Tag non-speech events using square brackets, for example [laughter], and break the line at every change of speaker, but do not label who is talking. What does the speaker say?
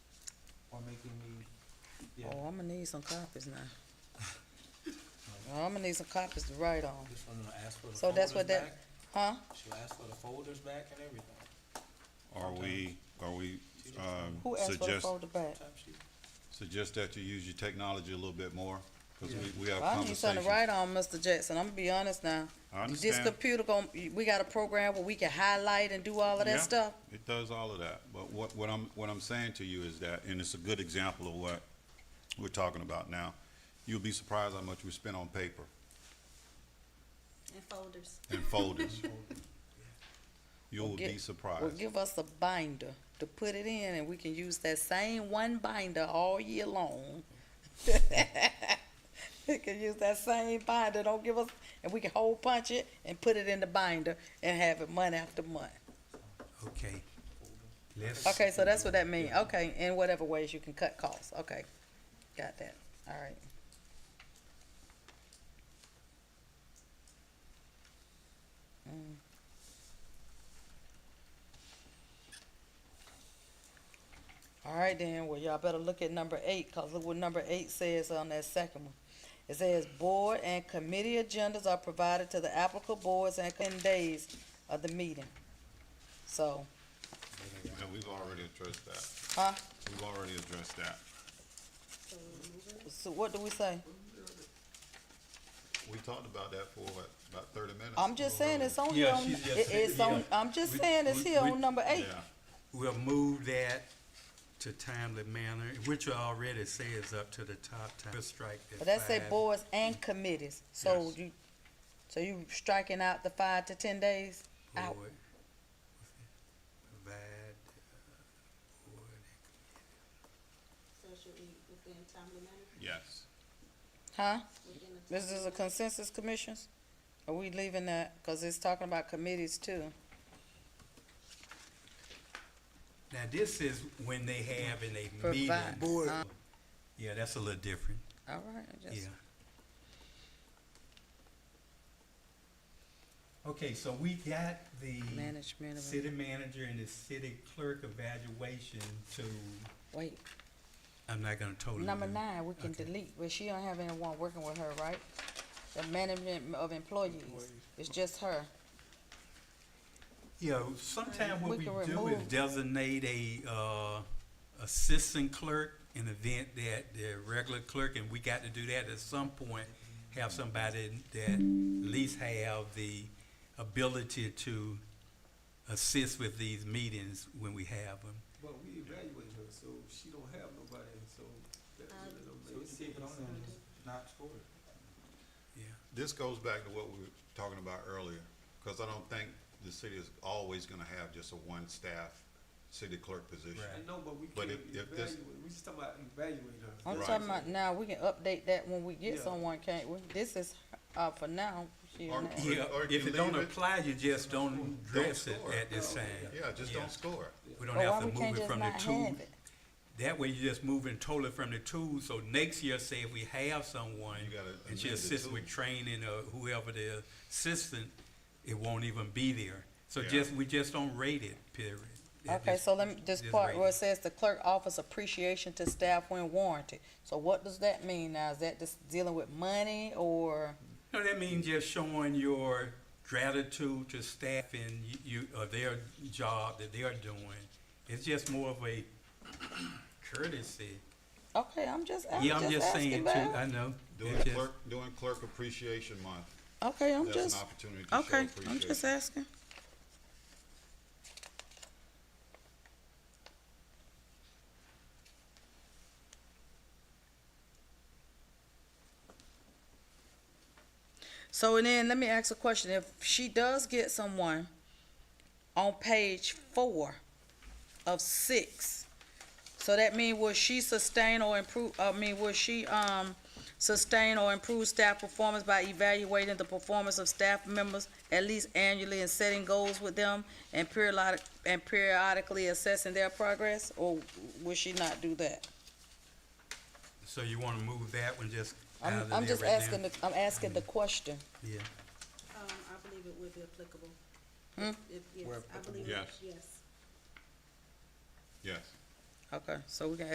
making me, yeah,
Oh, I'm gonna need some copies now. I'm gonna need some copies to write on,
this one gonna ask for the
So that's
folders
what
back.
that- huh?
She'll ask for the folders back and everything,
Are we, are we, um,
Who asked for the
suggest,
folder back?
time sheet.
suggest that you use your technology a little bit more? Cause
Yeah.
we, we have
I need something to
conversations.
write on, Mr. Jackson, I'm gonna be honest now.
I
This
understand,
computer gon' we got a program where we can highlight and do all of
Yeah.
that stuff.
it does all of that, but what, what I'm, what I'm saying to you is that, and it's a good example of what we're talking about now. You'll be surprised how much we spend on paper
And folders.
and
[laughs]
folders. You'll
get-
be
Well,
surprised.
give us a binder to put it in, and we can use that same one binder all year long. [laughs] We can use that same binder, don't give us, and we can hole punch it and put it in the binder and have it month after month.
Okay, let's.
Okay, so that's what that mean, okay, in whatever ways you can cut costs, okay, got that, all right. Mm. All right then, well, y'all better look at number eight, cause look what number eight says on that second one. It says, board and committee agendas are provided to the applicable boards and ten days of the meeting. So,
Yeah, we've already addressed that.
Huh?
We've already addressed that.
So what do we say?
We talked about that for what, about thirty minutes?
I'm just saying it's on here
Yeah,
on,
she's- yeah,
it- it's
yeah.
on, I'm just
We-
saying it's
we-
here
we-
on number eight.
Yeah.
We'll move that to timely manner, which I already say is up to the top time. We'll strike that
But that say
five.
boards and committees, so
Yes.
you, so you striking out the five to ten days? out.
Board. Provide, uh, board.
So should we within timely manner,
Yes.
Huh?
within a
This is a consensus commissions? Are we leaving that, cause it's talking about committees too?
Now, this is when they have in a meeting.
Provide. Board. Uh.
Yeah, that's a little different,
All right, I
yeah.
just,
Okay, so we got the
management of,
city manager and the city clerk evaluation to.
wait,
I'm not gonna totally.
number
do-
nine, we can
Okay.
delete, but she don't have anyone working with her, right? The management of employees, it's just her.
Yeah, sometimes what
We
we
can
do is
remove-
designate a, uh, assistant clerk in the event that the regular clerk, and we got to do that at some point, have somebody that at least have the ability to assist with these meetings when we have them.
Well, we evaluate her, so she don't have nobody, so that really don't
So
make
just keep it on
sense.
there and just not score it.
Yeah,
This goes back to what we were talking about earlier, because I don't think the city is always gonna have just a one-staff city clerk position.
Right.
I know, but we
But
can't
if- if this-
evaluate, we just talking about evaluate her.
I'm
Right.
talking about now, we can update that when we get
Yeah.
someone, can't we? This is, uh, for now. she
Or-
not-
Yeah,
Yeah,
or you
if it don't
leave it-
apply, you just don't address it
score.
at this time.
Yeah, just
Yeah.
don't score.
We
But
don't
why
have to
we can't
move it
just
from the
not
two
have it?
That way you're just moving totally from the tool, so next year, say if we have someone,
You gotta
and she
amend the
assists with
tool.
training or whoever the assistant, it won't even be there. So
Yeah.
just, we just don't rate it, period. That
Okay,
just-
so let me, this
just
part
rate
where it
it.
says the clerk offers appreciation to staff when warranted. So what does that mean now? Is that just dealing with money or,
No, that means just showing your gratitude to staff and you- you, or their job that they are doing. It's just more of a courtesy.
okay, I'm just, I'm
Yeah, I'm
just
just saying
asking,
too,
Val.
I know.
Doing
It's just-
clerk, doing clerk appreciation month,
Okay, I'm
that's
just,
an opportunity to show
okay, I'm just
appreciation.
asking. So and then let me ask a question. If she does get someone on page four of six, so that mean will she sustain or improve, I mean, will she, um, sustain or improve staff performance by evaluating the performance of staff members at least annually and setting goals with them and periodic, and periodically assessing their progress? Or will she not do that?
So you wanna move that one just out of
I'm,
there
I'm just
right now?
asking, the- I'm asking the question.
Yeah.
Um, I believe it would be applicable.
Hmm?
If, yes,
Where
I believe, it-
applicable.
yes.
Yes.
Okay, so we can